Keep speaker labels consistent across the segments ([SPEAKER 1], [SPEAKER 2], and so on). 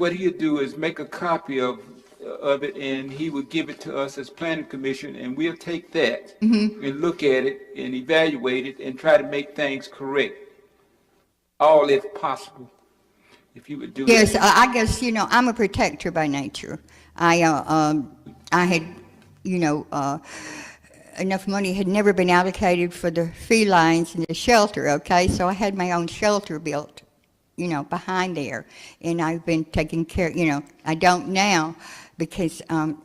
[SPEAKER 1] what he'd do is make a copy of, of it and he would give it to us as planning commission and we'll take that and look at it and evaluate it and try to make things correct. All if possible, if you would do that.
[SPEAKER 2] Yes, I I guess, you know, I'm a protector by nature. I, uh, um, I had, you know, uh, enough money had never been allocated for the felines and the shelter, okay? So I had my own shelter built, you know, behind there. And I've been taking care, you know, I don't now because, um,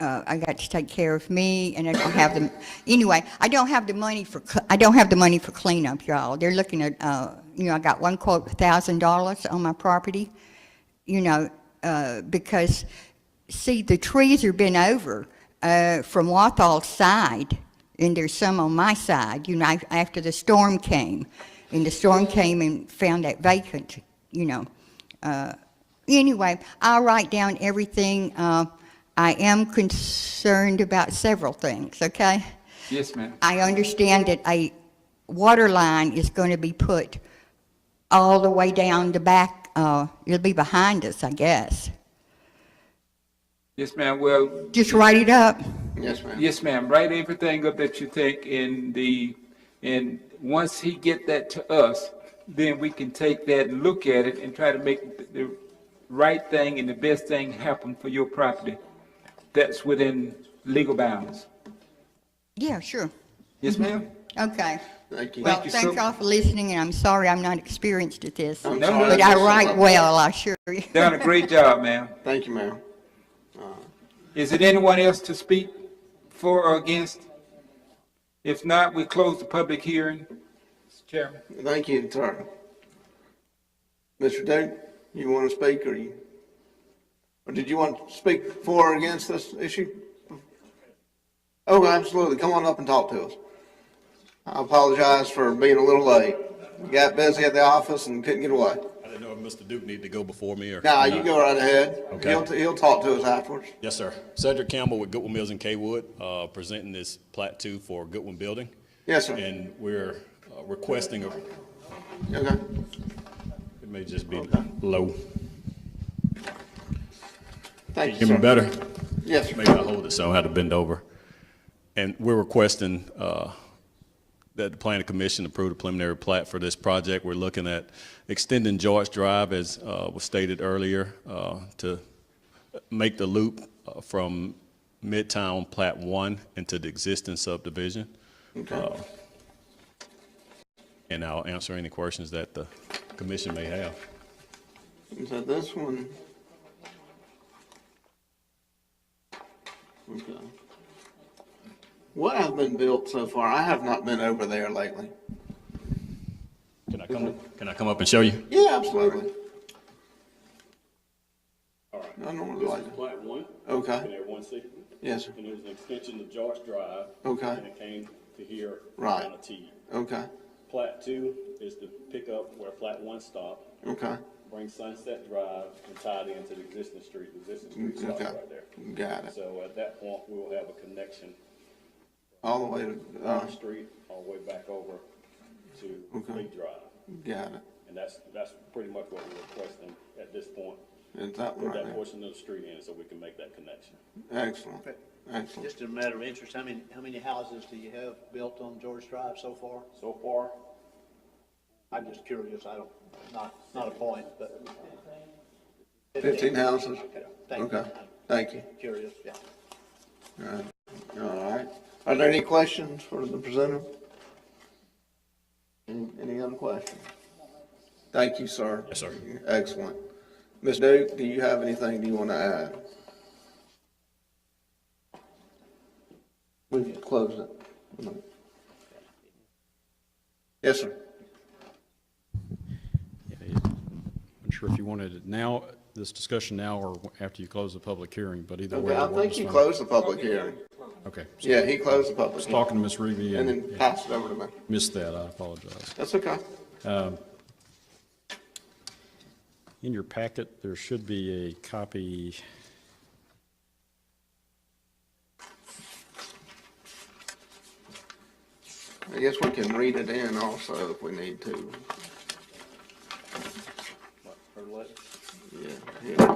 [SPEAKER 2] uh, I got to take care of me, and I don't have the, anyway, I don't have the money for, cl- I don't have the money for cleanup, y'all. They're looking at, uh, you know, I got one quote, thousand dollars on my property, you know, uh, because, see, the trees are bent over, uh, from Wathall's side, and there's some on my side, you know, af- after the storm came. And the storm came and found that vacant, you know, uh, anyway, I'll write down everything. Uh, I am concerned about several things, okay?
[SPEAKER 1] Yes, ma'am.
[SPEAKER 2] I understand that a water line is going to be put all the way down the back, uh, it'll be behind us, I guess.
[SPEAKER 1] Yes, ma'am. Well,
[SPEAKER 2] Just write it up.
[SPEAKER 3] Yes, ma'am.
[SPEAKER 1] yes, ma'am. Write everything up that you think in the, and once he get that to us, then we can take that and look at it and try to make the- the right thing and the best thing happen for your property. That's within legal bounds.
[SPEAKER 2] Yeah, sure.
[SPEAKER 1] Yes, ma'am?
[SPEAKER 2] Okay.
[SPEAKER 3] Thank you.
[SPEAKER 2] Well,
[SPEAKER 1] you so-
[SPEAKER 2] thanks all for listening, and I'm sorry I'm not experienced at this.
[SPEAKER 3] I'm
[SPEAKER 1] No,
[SPEAKER 3] sorry.
[SPEAKER 2] But I write well, I sure.
[SPEAKER 1] Done a great job, ma'am.
[SPEAKER 3] Thank you, ma'am.
[SPEAKER 1] Is it anyone else to speak for or against? If not, we close the public hearing. Mr. Chairman.
[SPEAKER 3] Thank you, sir. Mr. Duke, you want to speak or you? Or did you want to speak for or against this issue? Oh, absolutely. Come on up and talk to us. I apologize for being a little late. Got busy at the office and couldn't get away.
[SPEAKER 4] I didn't know if Mr. Duke needed to go before me or.
[SPEAKER 3] Now, you go right ahead.
[SPEAKER 4] Okay.
[SPEAKER 3] He'll, he'll talk to us afterwards.
[SPEAKER 4] Yes, sir. Cedric Campbell with Goodwin Mills in Kaywood, uh, presenting this plat two for Goodwin Building.
[SPEAKER 3] Yes, sir.
[SPEAKER 4] And we're uh, requesting, a- it
[SPEAKER 3] Okay.
[SPEAKER 4] may just be low.
[SPEAKER 3] Thank you,
[SPEAKER 4] Give me
[SPEAKER 3] sir.
[SPEAKER 4] better.
[SPEAKER 3] Yes, sir.
[SPEAKER 4] Maybe I hold it, so I had to bend over. And we're requesting uh, that the planning commission approve the preliminary plat for this project. We're looking at extending George Drive, as uh, was stated earlier, uh, to make the loop uh, from Midtown Plat One into the existing subdivision. Uh,
[SPEAKER 3] Okay.
[SPEAKER 4] And I'll answer any questions that the commission may have.
[SPEAKER 3] So this one. Okay. What has been built so far? I have not been over there lately.
[SPEAKER 4] Can I come, can I come up and show you?
[SPEAKER 3] Yeah, absolutely. I normally like it.
[SPEAKER 4] Plat One,
[SPEAKER 3] Okay,
[SPEAKER 4] everyone see?
[SPEAKER 3] yes, sir.
[SPEAKER 4] And it was an extension of George Drive.
[SPEAKER 3] Okay.
[SPEAKER 4] And it came to here.
[SPEAKER 3] Right.
[SPEAKER 4] On a T.
[SPEAKER 3] Okay,
[SPEAKER 4] Plat two is to pick up where plat one stopped,
[SPEAKER 3] okay,
[SPEAKER 4] bring Sunset Drive and tie it into the existing street, The existing street stops
[SPEAKER 3] Mm, okay.
[SPEAKER 4] right there.
[SPEAKER 3] Got it.
[SPEAKER 4] So at that point, we will have a connection
[SPEAKER 3] All the way to, uh,
[SPEAKER 4] from the street all the way back over
[SPEAKER 3] Okay.
[SPEAKER 4] to Lee Drive.
[SPEAKER 3] got it.
[SPEAKER 4] And that's, that's pretty much what we're requesting at this point,
[SPEAKER 3] Is that one
[SPEAKER 4] put
[SPEAKER 3] right
[SPEAKER 4] that
[SPEAKER 3] there?
[SPEAKER 4] portion of the street in so we can make that connection.
[SPEAKER 3] Excellent, excellent.
[SPEAKER 5] Just a matter of interest, how many, how many houses do you have built on George Drive so far?
[SPEAKER 4] So far,
[SPEAKER 5] I'm just curious, I don't, not, not a point, but.
[SPEAKER 3] Fifteen houses?
[SPEAKER 5] Okay, thank you.
[SPEAKER 3] Okay, thank you.
[SPEAKER 5] Curious, yeah.
[SPEAKER 3] All right. Are there any questions for the presenter? Any any other questions? Thank you, sir.
[SPEAKER 4] Yes, sir.
[SPEAKER 3] Excellent. Ms. Duke, do you have anything you want to add? We've closed it. Yes, sir.
[SPEAKER 6] I'm sure if you wanted it now, this discussion now or after you close the public hearing, but either way.
[SPEAKER 3] Okay, I
[SPEAKER 6] the word
[SPEAKER 3] think
[SPEAKER 6] is
[SPEAKER 3] you
[SPEAKER 6] fine.
[SPEAKER 3] closed the public hearing.
[SPEAKER 6] Okay. so
[SPEAKER 3] Yeah, he closed the
[SPEAKER 6] I
[SPEAKER 3] public
[SPEAKER 6] was
[SPEAKER 3] hearing
[SPEAKER 6] talking to Ms. Reevy
[SPEAKER 3] and then
[SPEAKER 6] and
[SPEAKER 3] passed it over to me.
[SPEAKER 6] missed that. I apologize.
[SPEAKER 3] That's okay.
[SPEAKER 6] In your packet, there should be a copy.
[SPEAKER 3] I guess we can read it in also if we need to.
[SPEAKER 5] Her letter,
[SPEAKER 3] Yeah, yeah.